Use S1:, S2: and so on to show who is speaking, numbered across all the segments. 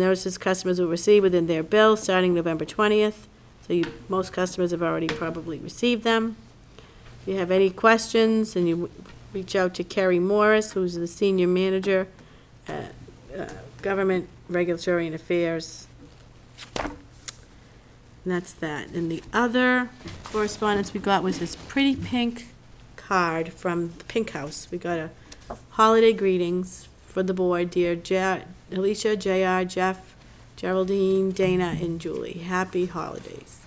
S1: Notices customers will receive within their bill starting November 20th. So you, most customers have already probably received them. If you have any questions, and you w- reach out to Kerry Morris, who's the senior manager, uh, uh, Government Regulatory and Affairs. And that's that. And the other correspondence we got was this pretty pink card from the Pink House. We got a holiday greetings for the board, dear Ja- Alicia, JR, Jeff, Geraldine, Dana, and Julie. Happy holidays.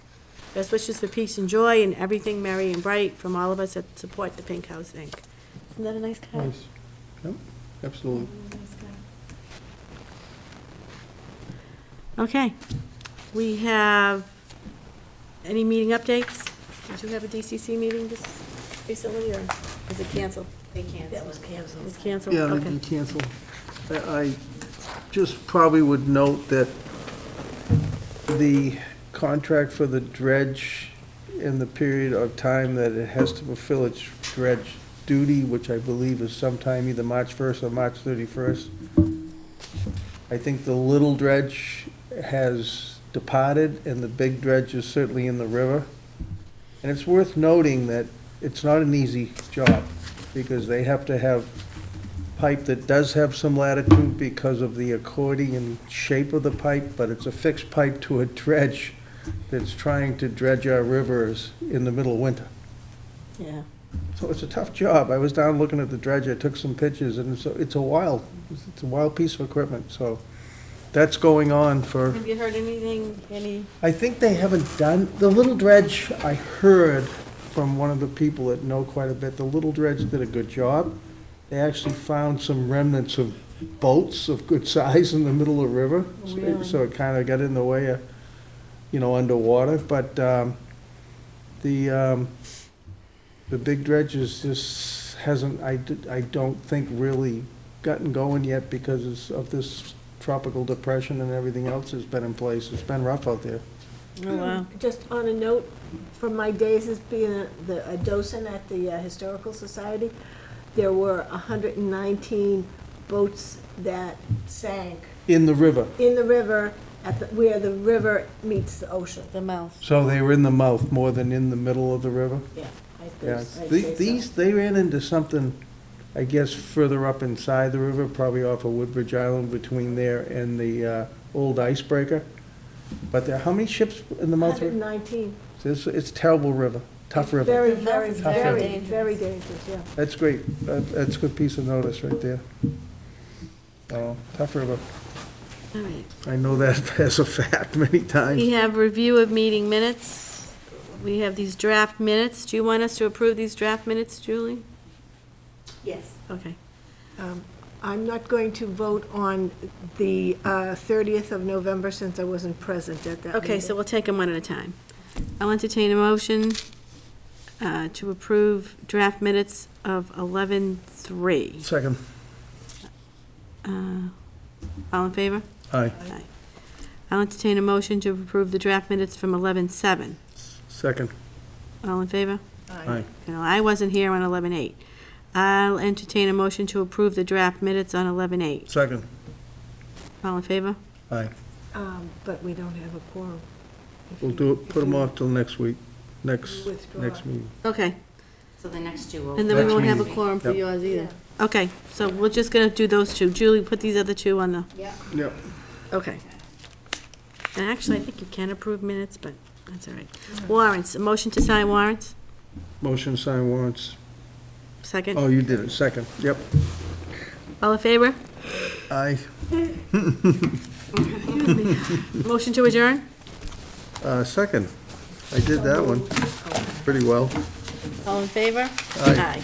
S1: Best wishes for peace and joy and everything merry and bright from all of us that support the Pink House Inc. Isn't that a nice card?
S2: Nice. Yep, absolutely.
S1: Okay. We have, any meeting updates? Did you have a DCC meeting this recently, or was it canceled? They canceled. That was canceled.
S3: Oh,
S1: It's canceled,
S2: Yeah, they
S1: okay.
S2: can cancel. I I just probably would note that the contract for the dredge and the period of time that it has to fulfill its dredge duty, which I believe is sometime either March 1st or March 31st. I think the little dredge has departed, and the big dredge is certainly in the river. And it's worth noting that it's not an easy job, because they have to have pipe that does have some latitude because of the accordion shape of the pipe, but it's a fixed pipe to a dredge that's trying to dredge our rivers in the middle of winter.
S1: Yeah.
S2: So it's a tough job. I was down looking at the dredge, I took some pictures, and it's, a- it's a wild, it's a wild piece of equipment, so that's going on for,
S1: Have you heard anything, any?
S2: I think they haven't done, the little dredge, I heard from one of the people that know quite a bit, the little dredge did a good job. They actually found some remnants of boats of good size in the middle of the river. so-
S1: Really?
S2: So it kind of got in the way of, you know, underwater, but, um, the, um, the big dredge is just, hasn't, I, d- I don't think really gotten going yet because it's of this tropical depression and everything else that's been in place. It's been rough out there.
S1: Oh, wow.
S3: Um, Just on a note, from my days as being a- the, a docent at the uh, Historical Society, there were hundred and nineteen boats that sank
S2: In the river.
S3: in the river at the, where the river meets the ocean.
S1: The mouth.
S2: So they were in the mouth more than in the middle of the river?
S3: Yeah. I think-
S2: Yeah.
S3: I'd
S2: The-
S3: say so.
S2: These, they ran into something, I guess, further up inside the river, probably off of Woodbridge Island between there and the uh, old icebreaker. But there, how many ships in the mouth?
S3: 119.
S2: It's, it's terrible river, tough river.
S3: Very, very,
S1: Tough
S3: very,
S1: river.
S3: very dangerous, yeah.
S2: That's great. That- That's a good piece of notice right there. Oh, Tough river.
S1: All right.
S2: I know that as a fact many
S1: We
S2: times.
S1: have review of meeting minutes. We have these draft minutes. Do you want us to approve these draft minutes, Julie?
S3: Yes.
S1: Okay.
S3: Um, I'm not going to vote on the uh, 30th of November since I wasn't present at that
S1: Okay,
S3: meeting.
S1: so we'll take them one at a time. I'll entertain a motion uh, to approve draft minutes of 11:03.
S2: Second.
S1: Uh, All in favor?
S2: Aye.
S1: Aye. I'll entertain a motion to approve the draft minutes from 11:07.
S2: Second.
S1: All in favor?
S2: Aye.
S1: No, I wasn't here on 11:08. I'll entertain a motion to approve the draft minutes on 11:08.
S2: Second.
S1: All in favor?
S2: Aye.
S3: Um, But we don't have a quorum.
S2: We'll do it, put them off till next week, next,
S3: Withdraw.
S2: next meeting.
S1: Okay,
S4: So the next two will.
S1: and then we
S2: Next
S1: won't have a
S2: meeting.
S1: quorum for
S2: Yep.
S1: yours either. Okay, so we're just gonna do those two. Julie, put these other two on the,
S4: Yeah.
S2: Yep.
S1: okay. And actually, I think you can approve minutes, but that's all right. Warrants, a motion to sign warrants?
S2: Motion to sign warrants.
S1: Second?
S2: Oh, you did it, second. Yep.
S1: All in favor?
S2: Aye.
S1: Motion to adjourn?
S2: Uh, second. I did that one pretty well.
S1: All in favor?
S2: Aye.